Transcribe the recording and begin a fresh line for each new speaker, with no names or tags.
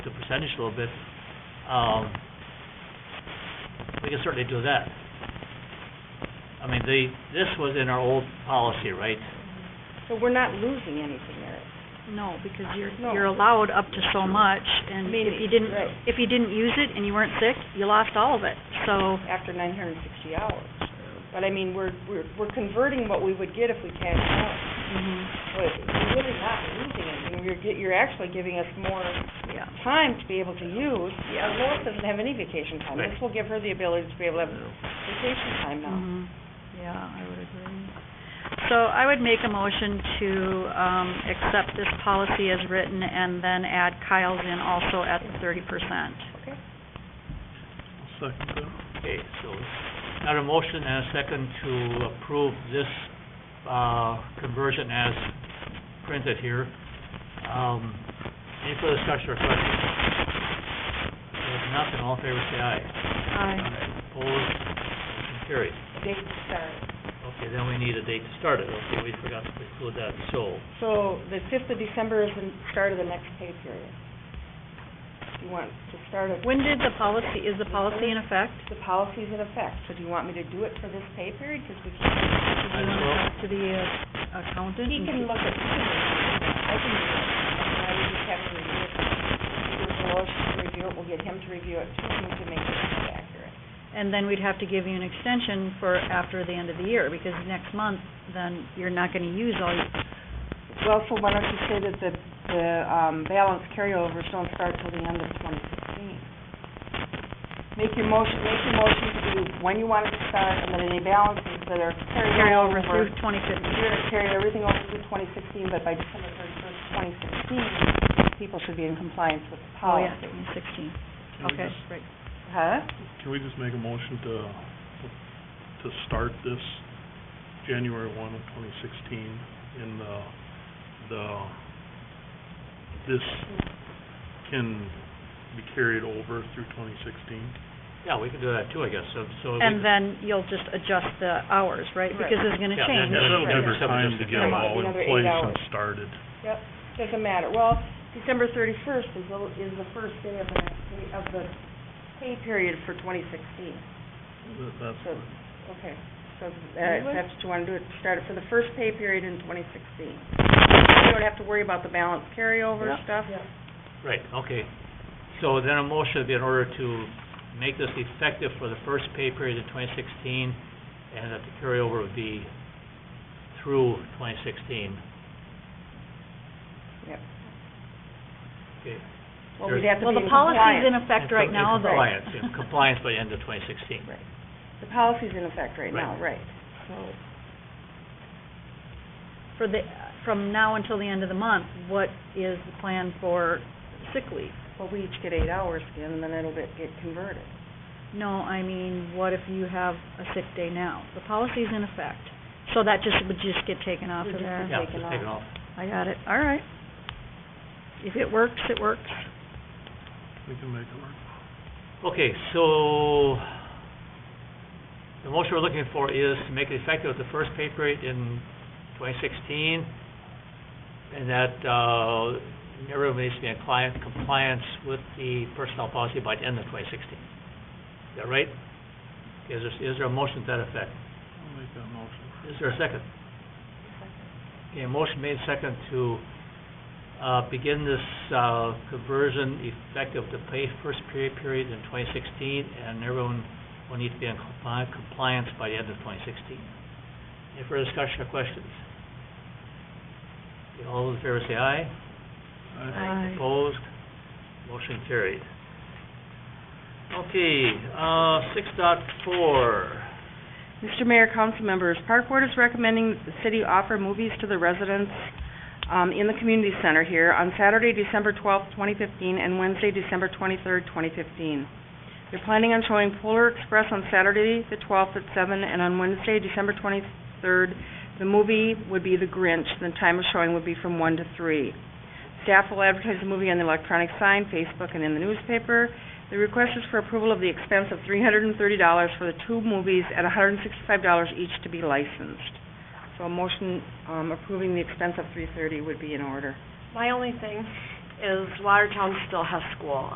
percentage a little bit, um, we can certainly do that. I mean, the, this was in our old policy, right?
So we're not losing anything, Eric.
No, because you're,
No.
you're allowed up to so much, and if you didn't,
Right.
if you didn't use it and you weren't sick, you lost all of it, so,
after nine hundred and sixty hours. But I mean, we're, we're, we're converting what we would get if we cashed out,
mhm,
but we're really not losing anything. You're, get- you're actually giving us more
yeah.
time to be able to use. Our Lois doesn't have any vacation time. This will give her the ability to be able to have vacation time now.
Mhm. Mm-hmm. Yeah, I would agree. So I would make a motion to, um, accept this policy as written and then add Kyle's in also at the thirty percent.
Okay.
Okay, so, got a motion and a second to approve this, uh, conversion as printed here. Um, any further discussion or questions? If nothing, all in favor, say aye.
Aye.
Opposed, motion carries.
Date to start.
Okay, then we need a date to start it, okay, we forgot to include that, so,
So the fifth of December is the start of the next pay period. Do you want to start it?
When did the policy, is the policy in effect?
The policy's in effect, so do you want me to do it for this pay period? Because we can't.
Do you want to talk to the uh, accountant?
He
and
can look at, he can look at it. I can do it. I would just have to review it. Either Lois should review it, we'll get him to review it too, and we can make sure it's accurate.
And then we'd have to give you an extension for after the end of the year, because next month, then you're not gonna use all, your-
Well, so why don't you say that the, the, um, balance carryovers don't start till the end of twenty sixteen? Make your motion, make your motion to do when you want it to start, and then any balances that are
carry
carried over.
over through twenty fifteen.
You're gonna carry everything over through twenty sixteen, but by December thirty-first, twenty sixteen, people should be in compliance with the
Oh, yeah,
policy.
sixteen,
Can we
okay,
just-
right.
Huh?
Can we just make a motion to, to start this January one of twenty sixteen in the, the, this can be carried over through twenty sixteen?
yeah, we can do that too, I guess, so, so. we
And
can-
then you'll just adjust the hours, right? Because it's gonna
Yeah,
change.
Yeah,
That'll
that'll
give
give
her
her
time to get it all in
Another eight
place
hours.
and started.
Yep, doesn't matter. Well, December thirty-first is the, is the first day of the, next pay- of the pay period for twenty sixteen.
That- That's,
So, okay, so, uh, if that's what you wanna do, it start it for the first pay period in twenty sixteen. You don't have to worry about the balance carryover stuff.
Right, okay. So then a motion would be in order to make this effective for the first pay period in twenty sixteen, and that the carryover would be through twenty sixteen.
Yep.
Okay.
Well, we'd have to
Well,
be in
the policy's in
compliance.
effect right
In
now, though.
Compliance, in compliance by end of twenty sixteen.
Right. The policy's in effect right now, right.
For the, from now until the end of the month, what is the plan for sick leave?
Well, we each get eight hours again, and then it'll get, get converted.
No, I mean, what if you have a sick day now? The policy's in effect, so that just, would just get taken off
Would
of
just
there.
be
Yeah,
taken
just take it off.
I got it, all right. If it works, it works.
we can make it work.
Okay, so the motion we're looking for is to make it effective with the first pay period in twenty sixteen, and that, uh, everybody needs to be in client compliance with the personnel policy by the end of twenty sixteen. Is that right? Is there, is there a motion to that effect?
I'll make that motion.
Is there a second? Okay, motion made second to, uh, begin this, uh, conversion effective the pay first pay period in twenty sixteen, and everyone will need to be in compli- compliance by the end of twenty sixteen. Any further discussion or questions? Okay, All those in favor say aye.
I-
Aye.
Opposed? Motion carried. Okay, uh, six dot four.
Mr. Mayor, council members, Park Board is recommending that the city offer movies to the residents um, in the community center here on Saturday, December twelfth, twenty fifteen, and Wednesday, December twenty-third, twenty fifteen. They're planning on showing Polar Express on Saturday, the twelfth at seven, and on Wednesday, December twenty-third, the movie would be The Grinch, and the time of showing would be from one to three. Staff will advertise the movie on the electronic sign, Facebook, and in the newspaper. The request is for approval of the expense of three hundred and thirty dollars for the two movies at hundred and sixty-five dollars each to be licensed. So a motion, um, approving the expense of three thirty would be in order.
My only thing is Watertown still has school